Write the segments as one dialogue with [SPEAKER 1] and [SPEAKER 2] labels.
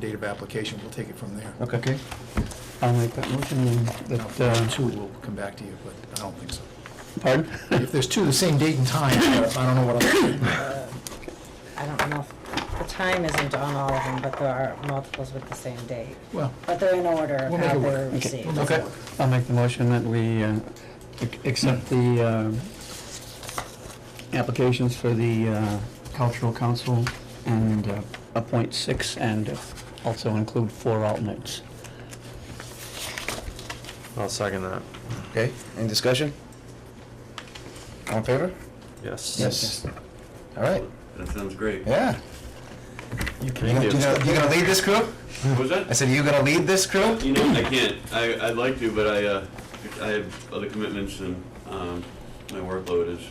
[SPEAKER 1] date of application, we'll take it from there.
[SPEAKER 2] Okay. I'll make that motion and
[SPEAKER 1] Now, if
[SPEAKER 2] that,
[SPEAKER 1] there are
[SPEAKER 2] uh,
[SPEAKER 1] two, we'll come back to you, but I don't think so.
[SPEAKER 2] pardon?
[SPEAKER 1] If there's two the same date and time, I don't know what I'm,
[SPEAKER 3] I don't know if the time isn't on all of them, but there are multiples with the same date.
[SPEAKER 1] well,
[SPEAKER 3] But they're in order of
[SPEAKER 1] We'll make
[SPEAKER 3] how
[SPEAKER 1] it work.
[SPEAKER 3] they were
[SPEAKER 1] Okay.
[SPEAKER 3] received.
[SPEAKER 1] We'll make
[SPEAKER 2] Okay, I'll make the motion that we uh, ac- accept the uh, applications for the uh, cultural council and uh, appoint six and also include four alternates.
[SPEAKER 4] I'll second that.
[SPEAKER 5] Okay, any discussion? All in favor?
[SPEAKER 4] Yes.
[SPEAKER 5] All right,
[SPEAKER 6] That sounds great.
[SPEAKER 5] yeah.
[SPEAKER 4] You
[SPEAKER 5] You
[SPEAKER 4] can
[SPEAKER 5] gonna,
[SPEAKER 4] do.
[SPEAKER 5] you gonna- you gonna lead this crew?
[SPEAKER 6] What was
[SPEAKER 5] I
[SPEAKER 6] that?
[SPEAKER 5] said, you gonna lead this crew?
[SPEAKER 6] You know, I can't. I, I'd like to, but I, uh, I have other commitments and, um, my workload is,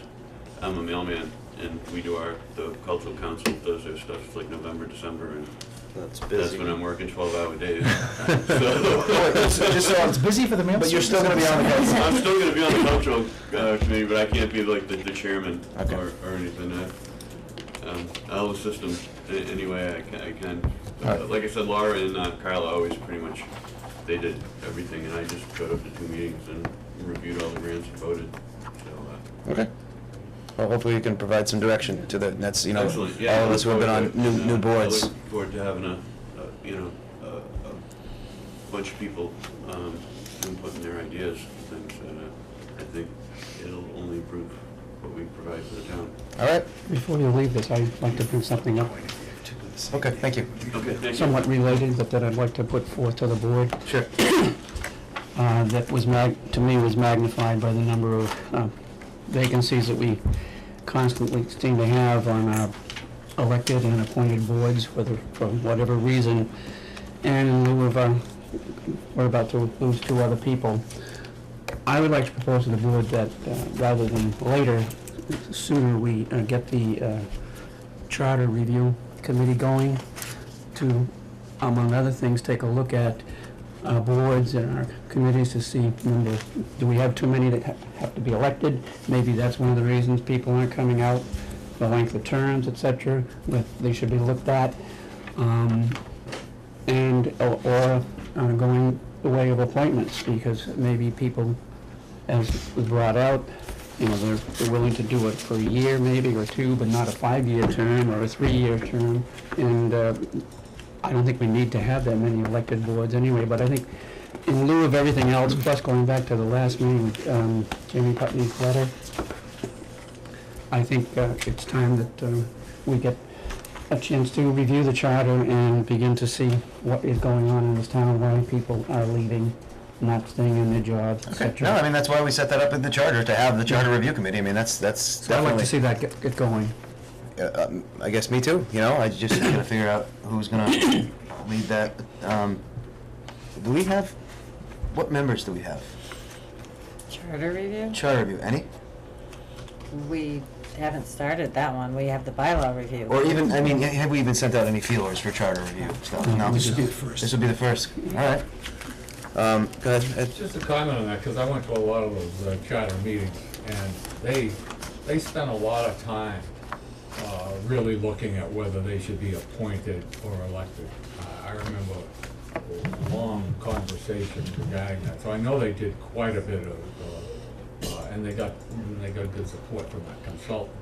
[SPEAKER 6] I'm a mailman and we do our, the cultural council does their stuff like November, December and
[SPEAKER 4] That's
[SPEAKER 6] that's
[SPEAKER 4] busy.
[SPEAKER 6] when I'm working twelve hour days.
[SPEAKER 5] Oh, wait,
[SPEAKER 6] So,
[SPEAKER 5] so- just so
[SPEAKER 1] it's
[SPEAKER 5] I'm-
[SPEAKER 1] busy for the mail.
[SPEAKER 5] But you're still gonna be on the council.
[SPEAKER 6] I'm still gonna be on the cultural, uh, committee, but I can't be like the, the chairman
[SPEAKER 5] Okay.
[SPEAKER 6] or, or anything. I- Um, I'll assist them a- any way I can, I can.
[SPEAKER 5] All right.
[SPEAKER 6] Uh, Like I said, Laura and uh, Carla always pretty much, they did everything and I just showed up to two meetings and reviewed all the grants and voted, so, uh,
[SPEAKER 5] Okay. Well, hopefully you can provide some direction to the, and that's, you
[SPEAKER 6] uh,
[SPEAKER 5] know, all
[SPEAKER 6] excellent, yeah.
[SPEAKER 5] of us who have been on new, new
[SPEAKER 6] I
[SPEAKER 5] boards.
[SPEAKER 6] uh, look forward to having a, a- you know, a, a bunch of people, um, inputting their ideas and things, and, uh, I think it'll only improve what we provide to the town.
[SPEAKER 5] All right,
[SPEAKER 2] Before you leave this, I'd like to bring something up
[SPEAKER 5] okay, thank you.
[SPEAKER 6] Okay, thank you.
[SPEAKER 2] somewhat related, but that I'd like to put forth to the board.
[SPEAKER 5] Sure.
[SPEAKER 2] uh, that was mag, to me, was magnified by the number of uh, vacancies that we constantly seem to have on our elected and appointed boards, whether, for whatever reason. And in lieu of, uh, we're about to lose two other people. I would like to propose to the board that, uh, rather than later, sooner we uh, get the uh, charter review committee going to, among other things, take a look at our boards and our committees to see, number, do we have too many that ha- have to be elected? Maybe that's one of the reasons people aren't coming out, the length of terms, et cetera, that they should be looked at. Um, And, or- or uh, going the way of appointments, because maybe people, as was brought out, you know, they're they're willing to do it for a year maybe, or two, but not a five-year term or a three-year term. And uh, I don't think we need to have that many elected boards anyway, but I think in lieu of everything else, plus going back to the last meeting, with, um, Jamie Putney's letter, I think uh, it's time that uh, we get a chance to review the charter and begin to see what is going on in this town, why people are leaving, not staying in their jobs, et
[SPEAKER 5] Okay,
[SPEAKER 2] cetera.
[SPEAKER 5] no, I mean, that's why we set that up in the charter, to have the charter review committee. I mean, that's, that's
[SPEAKER 2] So I'd like to see
[SPEAKER 5] definitely,
[SPEAKER 2] that get get going.
[SPEAKER 5] uh, um, I guess me too, you know, I just gotta figure out who's gonna lead that. Um, Do we have, what members do we have?
[SPEAKER 3] Charter review?
[SPEAKER 5] Charter review, any?
[SPEAKER 3] We haven't started that one. We have the bylaw review.
[SPEAKER 5] Or even, I mean, have we even sent out any feelers for charter review stuff? No,
[SPEAKER 1] Mm-hmm. This would be the first. Mm-hmm.
[SPEAKER 5] This will be the first, all right. Um, go ahead, Ed.
[SPEAKER 7] Just a comment on that, because I went to a lot of those uh, charter meetings, and they, they spent a lot of time uh, really looking at whether they should be appointed or elected. I- I remember a long conversation regarding that, so I know they did quite a bit of, uh, uh, and they got, and they got good support from the consultant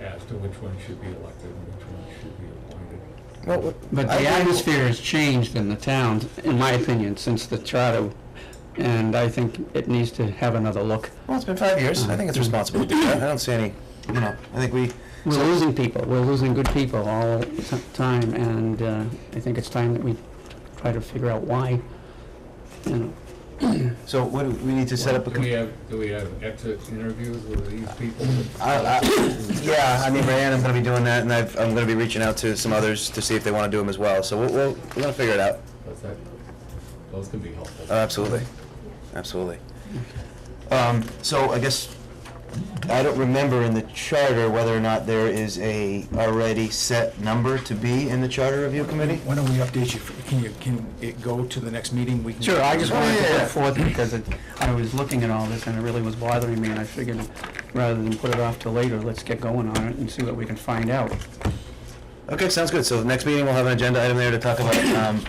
[SPEAKER 7] as to which one should be elected and which one should be appointed.
[SPEAKER 5] Well, what-
[SPEAKER 2] But
[SPEAKER 5] I
[SPEAKER 2] the
[SPEAKER 5] think-
[SPEAKER 2] atmosphere has changed in the town, in my opinion, since the charter, and I think it needs to have another look.
[SPEAKER 5] Well, it's been five years, I think it's responsible to do that, I don't see any, you know, I think we,
[SPEAKER 2] We're losing people, we're losing good people all the time, and uh, I think it's time that we try to figure out why, you know.
[SPEAKER 5] so what, do we need to set up a.
[SPEAKER 7] Do we have, do we have exit interviews with these people?
[SPEAKER 5] I- I- Yeah, I mean, Rayanne, I'm gonna be doing that, and I've, I'm gonna be reaching out to some others to see if they wanna do them as well, so we'll, we'll, we're gonna figure it out,
[SPEAKER 7] Does that- Those can be helpful.
[SPEAKER 5] Oh, absolutely, absolutely. Um, so I guess, I don't remember in the charter whether or not there is a already set number to be in the charter review committee?
[SPEAKER 1] Why don't we update you? Can you, can it go to the next meeting? We can-
[SPEAKER 2] Sure, I just
[SPEAKER 5] Oh,
[SPEAKER 2] wanted to
[SPEAKER 5] yeah, yeah.
[SPEAKER 2] put forth, because it- I was looking at all this, and it really was bothering me, and I figured, rather than put it off till later, let's get going on it and see what we can find out.
[SPEAKER 5] Okay, sounds good. So the next meeting, we'll have an agenda item there to talk about um,